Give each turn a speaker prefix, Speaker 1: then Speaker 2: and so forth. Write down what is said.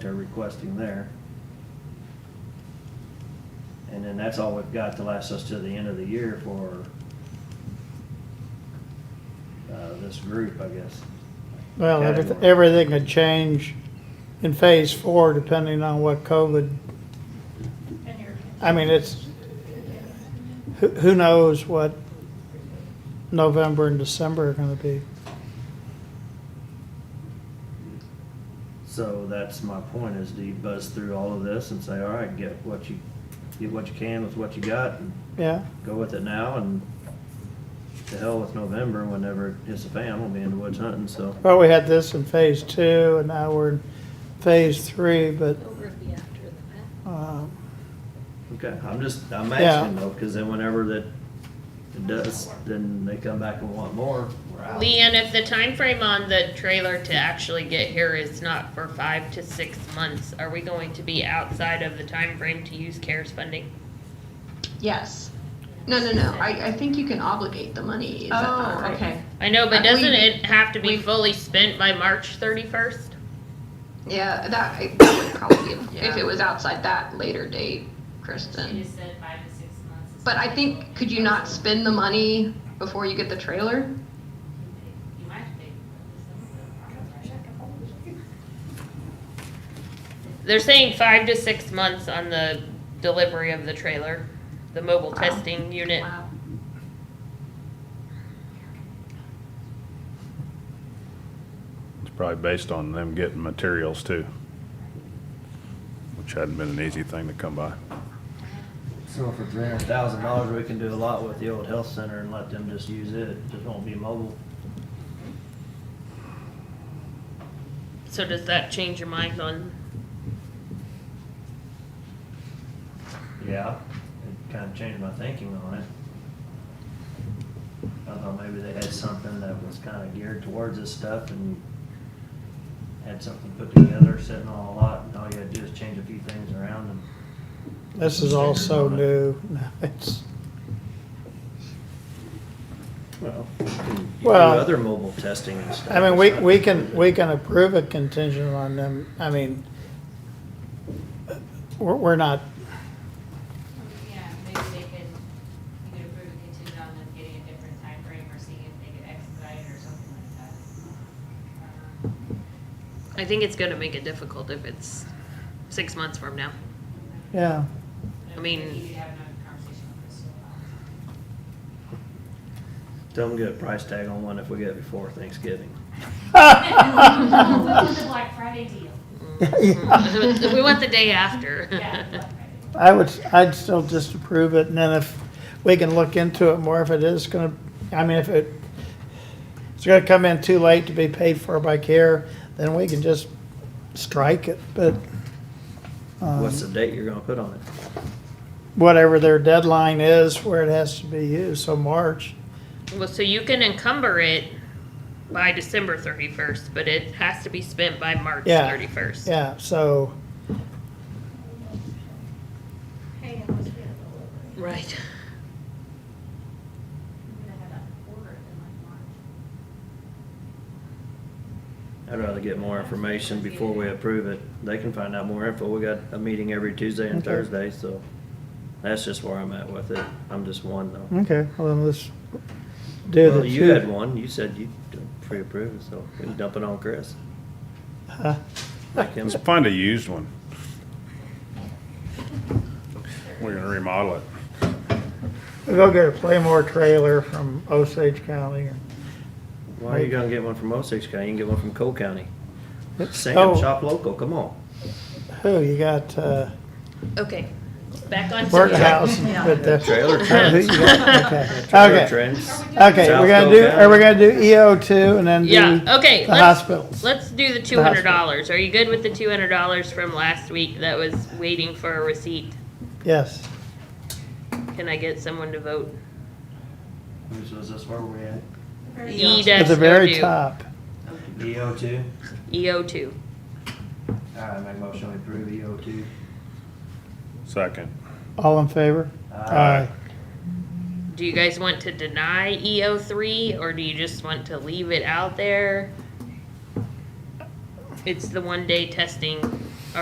Speaker 1: they're requesting there. And then that's all we've got to last us to the end of the year for uh, this group, I guess.
Speaker 2: Well, everything,
Speaker 1: Category.
Speaker 2: everything could change in phase four depending on what COVID,
Speaker 3: And your
Speaker 2: I mean, it's, who, who knows what November and December are gonna be.
Speaker 1: So that's my point, is do you buzz through all of this and say, all right, get what you, get what you can with what you got, and
Speaker 2: Yeah,
Speaker 1: go with it now, and to hell with November, whenever it hits the fan, we'll be in the woods hunting, so.
Speaker 2: well, we had this in phase two and now we're in phase three, but,
Speaker 4: Over the after the fact.
Speaker 2: uh,
Speaker 1: Okay, I'm just, I'm
Speaker 2: Yeah.
Speaker 1: asking though, because then whenever that it does, then they come back and want more, we're out.
Speaker 5: Leanne, if the time frame on the trailer to actually get here is not for five to six months, are we going to be outside of the time frame to use CARES funding?
Speaker 6: Yes. No, no, no. I, I think you can obligate the money. Is that not
Speaker 4: Oh,
Speaker 6: right?
Speaker 4: okay.
Speaker 5: I know,
Speaker 6: Uh,
Speaker 5: but
Speaker 6: we-
Speaker 5: doesn't it have to be
Speaker 6: we-
Speaker 5: fully spent by March thirty-first?
Speaker 6: Yeah, that, I- that would probably, if- if
Speaker 5: Yeah.
Speaker 6: it was outside that later date,
Speaker 3: She
Speaker 6: Kristen.
Speaker 3: just said five to six months. is
Speaker 6: But I
Speaker 3: what
Speaker 6: think, could you not spend the money before you get the trailer?
Speaker 3: You might think.
Speaker 5: They're saying five to six months on the delivery of the trailer, the mobile
Speaker 6: Wow.
Speaker 5: testing unit.
Speaker 6: Wow.
Speaker 7: It's probably based on them getting materials too, which hadn't been an easy thing to come by.
Speaker 1: So for three hundred thousand dollars, we can do a lot with the old health center and let them just use it, it just won't be mobile.
Speaker 5: So does that change your mind on,
Speaker 1: Yeah, it kind of changed my thinking on it. I thought maybe they had something that was kind of geared towards this stuff and had something put together, sitting on a lot, and all you had to do is change a few things around and.
Speaker 2: this is all so new. It's,
Speaker 1: Well, you can do
Speaker 2: Well-
Speaker 1: other mobile testing and stuff.
Speaker 2: I mean, we,
Speaker 1: It's not-
Speaker 2: we can, we can approve a contingent on them, I mean, we're, we're not,
Speaker 3: Yeah, maybe they could, you could approve a contingent on them getting a different time frame or seeing if they could expedite it or something like that. Um,
Speaker 5: I think it's gonna make it difficult if it's six months from now.
Speaker 2: yeah.
Speaker 3: but
Speaker 5: I mean-
Speaker 3: You could have another conversation with Crystal about it.
Speaker 1: Tell them to get a price tag on one if we get it before Thanksgiving.
Speaker 3: Welcome to the Black Friday deal.
Speaker 5: We want the day after.
Speaker 3: Yeah, Black Friday.
Speaker 2: I would, I'd still just approve it, and then if we can look into it more, if it is gonna, I mean, if it, it's gonna come in too late to be paid for by CARE, then we can just strike it, but um,
Speaker 1: What's the date you're gonna put on it?
Speaker 2: whatever their deadline is where it has to be used, so March,
Speaker 5: Well, so you can encumber it by December thirty-first, but it has to be spent by March
Speaker 2: Yeah.
Speaker 5: thirty-first.
Speaker 2: yeah, so,
Speaker 4: Hey, I was gonna deliver.
Speaker 5: Right.
Speaker 4: I'm gonna have to order it in like March.
Speaker 1: I'd rather get more information before we approve it. They can find out more info. We got a meeting every Tuesday and
Speaker 2: Okay.
Speaker 1: Thursday, so that's just where I'm at with it. I'm just one though.
Speaker 2: okay, well, then let's do the
Speaker 1: Well,
Speaker 2: two.
Speaker 1: you had one. You said you pre-approved, so we can dump it on Chris.
Speaker 2: Huh?
Speaker 1: Make him-
Speaker 7: Let's find a used one. We're gonna remodel it.
Speaker 2: We'll Go get a Playmore trailer from Osage County.
Speaker 1: Why are you gonna get one from Osage County? You can get one from Cole County. Sam,
Speaker 2: Oh.
Speaker 1: shop local, come on.
Speaker 2: Who, you got, uh,
Speaker 5: Okay, back on. subject.
Speaker 2: Burthouse, but the.
Speaker 1: Trailer
Speaker 2: Who
Speaker 1: trends.
Speaker 2: you got? Okay.
Speaker 1: Trailer
Speaker 2: Okay.
Speaker 1: trends.
Speaker 2: Okay, we're gonna do, are we gonna do EO two and then do
Speaker 5: Yeah, okay,
Speaker 2: the
Speaker 5: let's,
Speaker 2: hospitals?
Speaker 5: let's do the two
Speaker 2: The
Speaker 5: hundred
Speaker 2: hospital.
Speaker 5: dollars. Are you good with the two hundred dollars from last week that was waiting for a receipt?
Speaker 2: Yes.
Speaker 5: Can I get someone to vote?
Speaker 1: Which was this where we at?
Speaker 5: E
Speaker 2: At
Speaker 5: dash
Speaker 2: the very
Speaker 5: O
Speaker 2: top.
Speaker 1: EO E two?
Speaker 5: two. E O two.
Speaker 1: All right, make a motion to approve EO two.
Speaker 7: Second.
Speaker 2: All in favor?
Speaker 1: Aye.
Speaker 5: Do you guys want to deny E O three or do you just want to leave it out there? It's the one day testing